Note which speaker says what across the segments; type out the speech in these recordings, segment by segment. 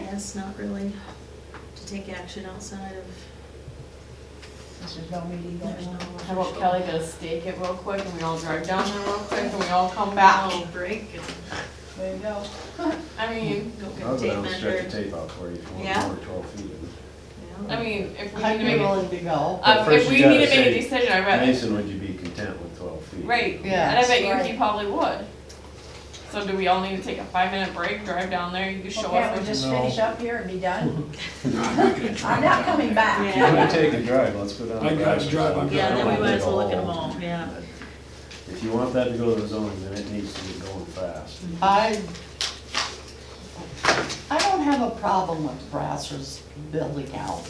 Speaker 1: guess, not really, to take action outside of,
Speaker 2: There's no meeting
Speaker 1: there's
Speaker 2: going
Speaker 1: no.
Speaker 2: on.
Speaker 3: How about Kelly to stake it real quick and we all drive down there real quick and we all come back?
Speaker 1: I'll break
Speaker 2: There you go.
Speaker 3: I mean,
Speaker 1: and go
Speaker 4: I
Speaker 1: get a
Speaker 4: was
Speaker 1: tape
Speaker 4: gonna stretch the
Speaker 1: measure.
Speaker 4: tape out for you if you
Speaker 1: Yeah?
Speaker 4: want more than twelve feet.
Speaker 1: Yeah.
Speaker 3: I mean, if we need
Speaker 2: I'd
Speaker 3: to
Speaker 2: be
Speaker 3: make, a-
Speaker 2: willing to go.
Speaker 4: But
Speaker 3: um,
Speaker 4: first
Speaker 3: if
Speaker 4: you
Speaker 3: we
Speaker 4: gotta
Speaker 3: need to make a
Speaker 4: say-
Speaker 3: decision, I bet,
Speaker 4: Mason, would you be content with twelve feet?
Speaker 3: right,
Speaker 2: Yeah.
Speaker 3: and I bet you he
Speaker 5: Right.
Speaker 3: probably would. So do we all need to take a five minute break, drive down there, you show
Speaker 2: Okay,
Speaker 3: us?
Speaker 2: we
Speaker 3: if-
Speaker 2: just
Speaker 4: No.
Speaker 2: finish up here and be done.
Speaker 6: I'm not gonna drive
Speaker 2: I'm not
Speaker 6: down
Speaker 2: coming
Speaker 6: there.
Speaker 2: back.
Speaker 4: If you wanna take a drive, let's go down.
Speaker 6: I
Speaker 4: the
Speaker 6: got
Speaker 4: drive.
Speaker 6: to drive, I'm
Speaker 1: Yeah, then we
Speaker 4: Don't
Speaker 1: might
Speaker 4: take
Speaker 1: as well look at them
Speaker 4: whole-
Speaker 1: all, yeah.
Speaker 4: If you want that to go to the zoning, then it needs to be going fast.
Speaker 2: I, I don't have a problem with Brasser's building out.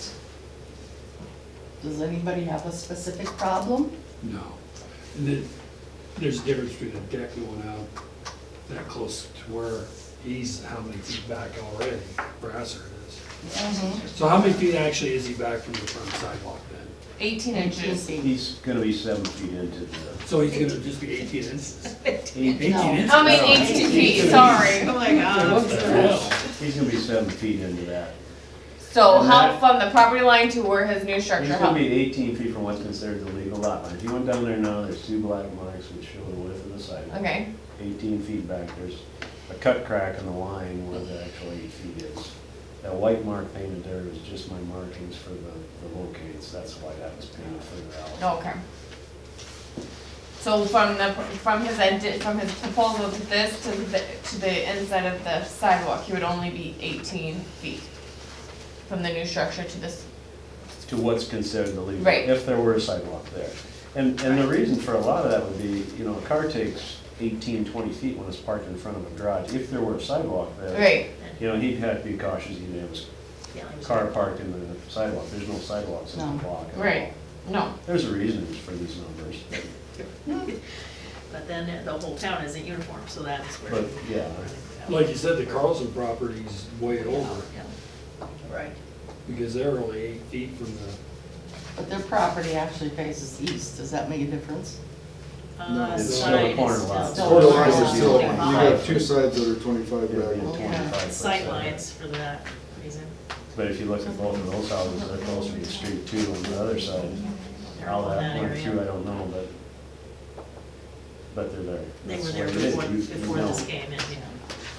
Speaker 2: Does anybody have a specific problem?
Speaker 6: No. And then, there's a difference between a deck going out that close to where he's, how many feet back already, Brasser is.
Speaker 3: Mm-hmm.
Speaker 6: So how many feet actually is he back from the front sidewalk then?
Speaker 3: Eighteen inches.
Speaker 4: He's gonna be seven feet into the.
Speaker 6: So he's gonna just be eighteen inches? Eighteen
Speaker 2: No.
Speaker 6: inches?
Speaker 3: I mean, eighteen feet, sorry.
Speaker 1: Oh my
Speaker 6: Yeah, What the hell?
Speaker 4: He's gonna be seven feet into that.
Speaker 3: So
Speaker 4: And
Speaker 3: how
Speaker 4: that-
Speaker 3: from the property line to where his new
Speaker 4: He's
Speaker 3: structure,
Speaker 4: gonna
Speaker 3: how,
Speaker 4: be eighteen feet from what's considered the legal lot line. If you went down there now, there's two black marks which show the width of the sidewalk.
Speaker 3: okay,
Speaker 4: eighteen feet back, there's a cut crack in the line where the actual eight feet is. That white mark painted there is just my markings for the, the locates, that's why that was painted further out.
Speaker 3: okay. So from the, from his edit, from his proposal to this, to the, to the inside of the sidewalk, he would only be eighteen feet from the new structure to this,
Speaker 4: To what's considered the legal,
Speaker 3: Right.
Speaker 4: if there were a sidewalk there. And, and the reason for a lot of that would be, you know, a car takes 18, 20 feet when it's parked in front of a garage, if there were a sidewalk there.
Speaker 3: right,
Speaker 4: You know, he'd have to be cautious, he'd have his car parked in the sidewalk, there's no sidewalks in
Speaker 2: No.
Speaker 4: the block at all.
Speaker 3: right, no.
Speaker 4: There's a reason for these numbers, but-
Speaker 1: But then the whole town isn't uniform, so that's where.
Speaker 4: but, yeah.
Speaker 6: Like you said, the Carlson property's way over,
Speaker 1: Yeah, Right.
Speaker 6: because they're only eight feet from the,
Speaker 2: But their property actually faces east, does that make a difference?
Speaker 1: Uh,
Speaker 4: It's
Speaker 1: side
Speaker 4: still a
Speaker 1: is
Speaker 4: corner
Speaker 1: still-
Speaker 4: lot.
Speaker 2: still-
Speaker 7: Quarter lines are
Speaker 2: Yeah.
Speaker 7: still, you
Speaker 1: Twenty-five.
Speaker 7: have two sides that are twenty-five
Speaker 4: Yeah,
Speaker 7: back.
Speaker 4: yeah, 25%.
Speaker 1: Sight lines for that reason.
Speaker 4: But if you look at both of those houses, they're closer to the street too on the other side.
Speaker 1: They're
Speaker 4: How
Speaker 1: all in that
Speaker 4: that went through, I
Speaker 1: area.
Speaker 4: don't know, but, but they're there.
Speaker 1: They were
Speaker 4: That's
Speaker 1: there
Speaker 4: what it is.
Speaker 1: before,
Speaker 4: You- you
Speaker 1: before
Speaker 4: know.
Speaker 1: this came in, yeah.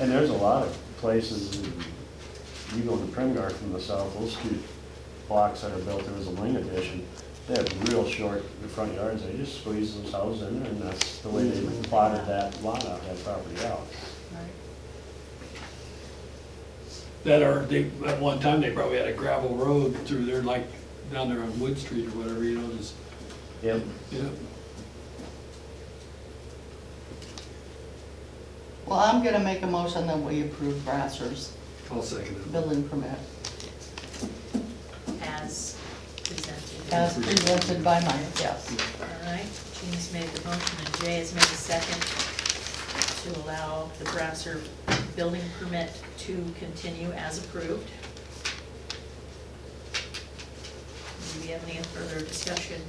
Speaker 4: And there's a lot of places, in- you go to Premgar from the south, those two blocks that are built, there was a lane addition. They have real short front yards, they just squeeze those houses in there and that's the way they plotted that lot out, that property out.
Speaker 6: that are, they, at one time, they probably had a gravel road through there, like down there on Wood Street or whatever, you know, just,
Speaker 4: Yep.
Speaker 6: yeah.
Speaker 2: Well, I'm gonna make a motion that we approve Brasser's
Speaker 6: I'll second it.
Speaker 2: building permit
Speaker 1: As presented.
Speaker 2: as presented by Mike, yes.
Speaker 1: All right, Jean's made the motion and Jay has made the second to allow the Brasser building permit to continue as approved. Do we have any further discussion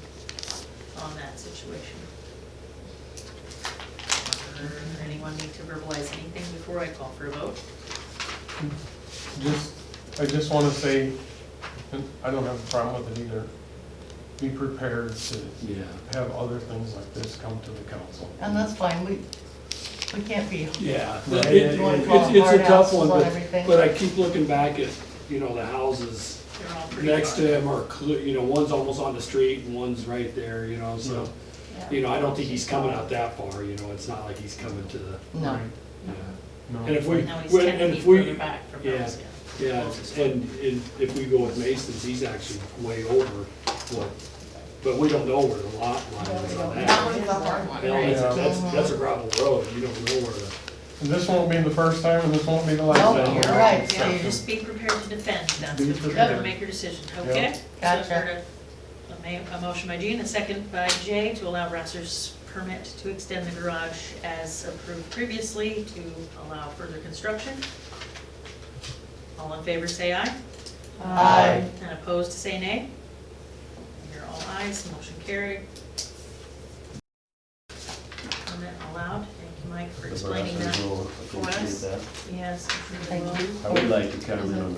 Speaker 1: on that situation? Or Anyone need to verbalize anything before I call for a vote?
Speaker 8: Just, I just wanna say, and I don't have a problem with it either. Be prepared to
Speaker 6: Yeah.
Speaker 8: have other things like this come to the council.
Speaker 2: And that's fine, we, we can't be
Speaker 6: Yeah,
Speaker 8: Right.
Speaker 6: it- it-
Speaker 2: You wanna call
Speaker 6: it's, it's a
Speaker 2: hard
Speaker 6: tough
Speaker 2: houses
Speaker 6: one,
Speaker 2: on
Speaker 6: but,
Speaker 2: everything?
Speaker 6: but I keep looking back at, you know, the houses
Speaker 1: They're all pretty
Speaker 6: next to
Speaker 1: far.
Speaker 6: him are, clu- you know, one's almost on the street and one's right there, you know, so. You know, I don't think he's coming out that far, you know, it's not like he's coming to the.
Speaker 2: No.
Speaker 6: Yeah.
Speaker 8: No.
Speaker 6: And if uh, we,
Speaker 1: Now he's
Speaker 6: when-
Speaker 1: ten
Speaker 6: and
Speaker 1: feet
Speaker 6: if we,
Speaker 1: further back from
Speaker 6: yeah.
Speaker 1: those, yeah.
Speaker 6: yeah, and, and if we go with Mason's, he's actually way over what, but we don't know where the lot line is on
Speaker 3: That
Speaker 6: that.
Speaker 3: one's a hard one,
Speaker 6: You know,
Speaker 3: right?
Speaker 6: that's, that's, that's a gravel road, you don't know where the.
Speaker 8: And this won't be the first time and this won't be the last
Speaker 2: Nope,
Speaker 8: time.
Speaker 2: you're right,
Speaker 1: Yeah,
Speaker 2: Steve.
Speaker 1: just be prepared to defend, that's
Speaker 8: Be
Speaker 1: what you're
Speaker 8: prepared.
Speaker 1: gonna make your decision, okay? So
Speaker 2: Gotcha.
Speaker 1: I've heard A a ma- a motion by Jean, a second by Jay to allow Rasser's permit to extend the garage as approved previously to allow further construction. All in favor, say aye.
Speaker 2: Aye.
Speaker 1: And opposed, say nay. Here all ayes, motion carried. Permit allowed, thank you, Mike, for
Speaker 4: The
Speaker 1: explaining
Speaker 4: Brassers
Speaker 1: that.
Speaker 4: will
Speaker 1: for us.
Speaker 4: appreciate that.
Speaker 1: Yes.
Speaker 2: Thank you.
Speaker 4: I would like to comment on the